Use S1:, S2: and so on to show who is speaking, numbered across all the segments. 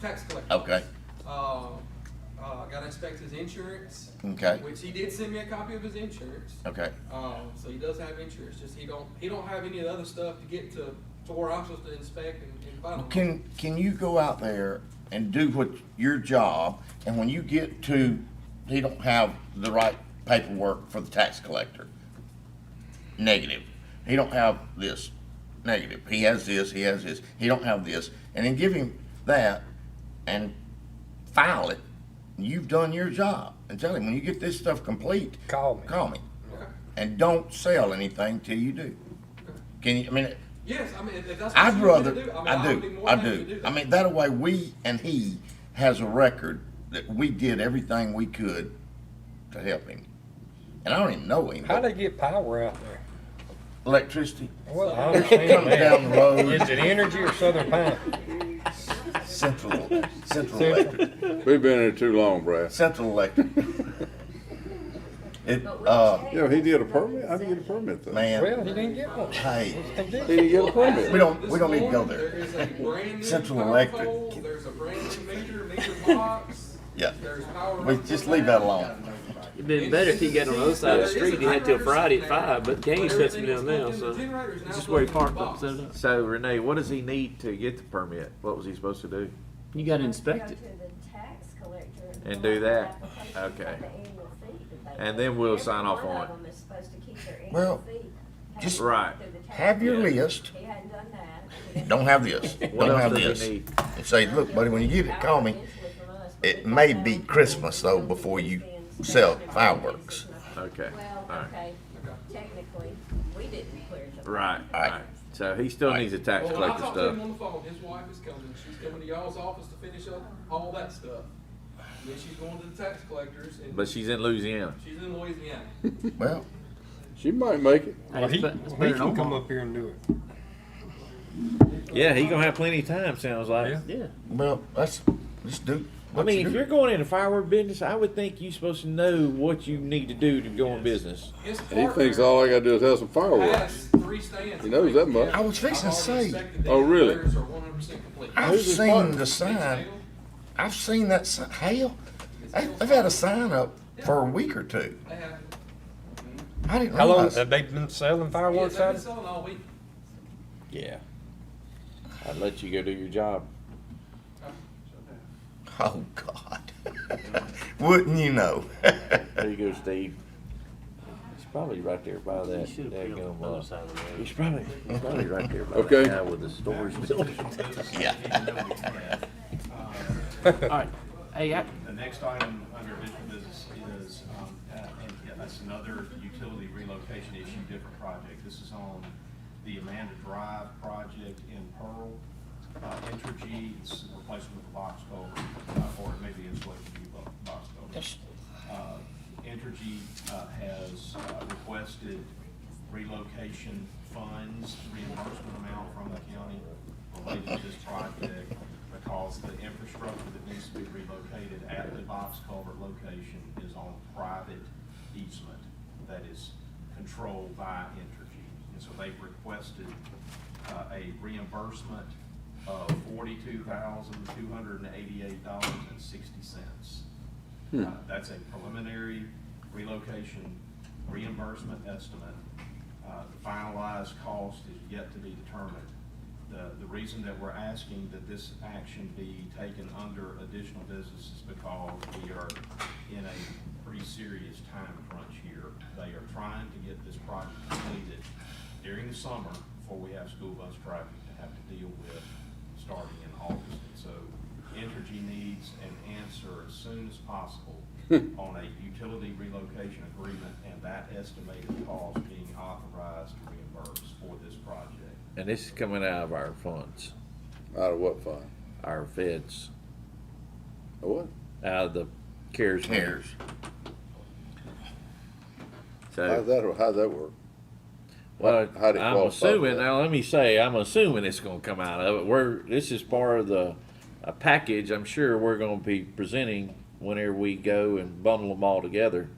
S1: tax collector.
S2: Okay.
S1: Uh, uh, gotta inspect his insurance.
S2: Oh. Okay. Oh.
S1: Which he did send me a copy of his insurance.
S2: Okay.
S1: Um, so he does have insurance, just he don't, he don't have any of the other stuff to get to, to where I'm supposed to inspect and, and final.
S2: Can, can you go out there and do what, your job, and when you get to, he don't have the right paperwork for the tax collector? Negative. He don't have this, negative. He has this, he has this, he don't have this. And then give him that and file it. You've done your job. And tell him, when you get this stuff complete.
S3: Call me.
S2: Call me.
S1: Okay.
S2: And don't sell anything till you do. Can you, I mean,
S1: Yes, I mean, if that's. what
S2: I'd
S1: you want
S2: rather,
S1: me to mean,
S2: I
S1: would be
S2: do,
S1: more
S2: I
S1: than happy to
S2: do.
S1: that.
S2: I mean, that way, we and he has a record that we did everything we could to help him. And I don't even know him,
S3: How
S2: but
S3: they get power out there?
S2: electricity
S3: Well, I
S2: comes
S3: understand
S2: down
S3: that.
S2: the road,
S3: Is it energy or Southern Pine?
S2: central, central electric,
S4: We've been here too long, Brad.
S2: central electric. It,
S5: But we
S2: uh,
S5: checked.
S4: Yeah, he did a permit. How did he get a permit though?
S3: Well,
S2: man,
S3: he didn't get one.
S2: hey,
S3: He did.
S4: He didn't get a
S2: we
S4: permit.
S2: don't, we don't need to go
S1: There
S2: there.
S1: is a brand new
S2: Central
S1: power
S2: Electric.
S1: pole, there's a brand new meter, meter box,
S2: Yeah,
S1: there's power.
S2: we
S1: up
S2: just
S1: there.
S2: leave that alone.
S6: It'd been better if he got on the other side of the street. He had till Friday at five, but Gaines shuts him down now, so this is where he parked up, set up.
S7: So Renee, what does he need to get the permit? What was he supposed to do?
S6: You gotta inspect it.
S5: Go to the tax collector
S7: And
S5: fill
S7: do
S5: out
S7: that?
S5: the application for the
S7: Okay.
S5: annual fee that they
S7: And
S5: pay.
S7: then we'll
S5: Every
S7: sign off
S5: one
S7: on
S5: of
S7: it.
S5: them is supposed to keep their annual
S2: Well,
S5: fee. Has
S2: just-
S5: to go
S7: Right.
S5: through the tax
S2: Have your
S5: collector.
S2: list,
S5: He hadn't done that.
S2: don't have this,
S7: What
S2: don't have
S7: else does he
S2: this.
S7: need?
S2: And say, look, buddy, when you get it, call me. It may be Christmas though before you sell fireworks.
S7: Okay,
S5: Well,
S7: all right.
S5: okay, technically, we didn't clear the.
S7: Right,
S2: All right.
S7: right. So he still needs a tax
S1: Well, when I
S7: collector
S1: talked to him
S7: stuff.
S1: on the phone, his wife is coming, she's coming to y'all's office to finish up all that stuff. And Then she's going to the tax collectors and
S7: But she's in Louisiana.
S1: she's in Louisiana.
S2: Well,
S4: She might make it.
S6: Hey, it's
S3: He,
S6: be- it's better
S3: he
S6: than
S3: can come
S6: Omaha.
S3: up here and do it.
S7: Yeah, he gonna have plenty of time, sounds like.
S3: Yeah.
S6: Yeah.
S2: well, that's, let's do.
S7: I
S2: what you
S7: mean, if
S2: do.
S7: you're going into firework business, I would think you're supposed to know what you need to do to go in business.
S1: His
S4: He thinks
S1: partner
S4: all I gotta do is have some fireworks.
S1: has three stands.
S4: He knows that much.
S2: I was fixing to
S1: I've already
S2: say,
S1: inspected them.
S4: Oh, really?
S1: Theirs are one hundred percent complete.
S2: I've
S7: Who's his
S2: seen
S7: partner?
S2: the sign, I've seen that sign, hell,
S1: It's
S2: I-
S1: Hale's
S2: I've had a sign up for a week or two.
S1: They have,
S2: I didn't
S3: How long
S2: realize.
S3: have they been selling
S1: yeah,
S3: fireworks
S1: they've
S3: out
S1: been
S3: of?
S1: selling all week.
S7: Yeah. I'd let you go do your job.
S2: Oh, God. Wouldn't you know?
S7: There you go, Steve. He's probably right there by that.
S6: You should've put it on
S7: daggum,
S6: the
S7: uh,
S6: other side of the road.
S7: He's probably, he's probably right there by
S4: Okay.
S7: that guy with the storage building.
S2: Yeah.
S6: All right. Hey, I,
S8: The next item under official business is, um, uh, and yeah, that's another utility relocation issue, different project. This is on the Amanda Drive project in Pearl. Uh, Entergy, it's a replacement of a box culvert, uh, or maybe insulated view bo- box culvert. Uh, Entergy uh, has uh, requested relocation funds, reimbursement amount from the county related to this project because the infrastructure that needs to be relocated at the box culvert location is on private easement that is controlled by Entergy. And so they've requested uh, a reimbursement of forty-two thousand, two hundred and eighty-eight dollars and sixty cents. Uh, That's a preliminary relocation reimbursement estimate. Uh, The finalized cost is yet to be determined. The, the reason that we're asking that this action be taken under additional business is because we are in a pretty serious time crunch here. They are trying to get this project completed during the summer before we have school bus traffic to have to deal with starting in August. And so Entergy needs an answer as soon as possible
S7: Hmm.
S8: on a utility relocation agreement and that estimated cost being authorized to reimburse for this project.
S7: And this is coming out of our funds,
S4: Out of what fund?
S7: our feds,
S4: A What?
S7: out of the CARES. money.
S2: Cares.
S4: How's
S7: So,
S4: that, how'd that work?
S7: well,
S4: how- how did it
S7: I'm
S4: qualify for
S7: assuming,
S4: that?
S7: now let me say, I'm assuming it's gonna come out of it. We're, this is part of the, a package I'm sure we're gonna be presenting whenever we go and bundle them all together.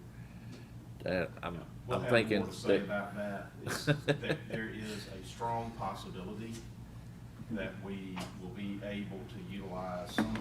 S7: Uh, I'm,
S8: We'll
S7: I'm
S8: have
S7: thinking
S8: more to say
S7: that,
S8: about that. It's- that There is a strong possibility that we will be able to utilize some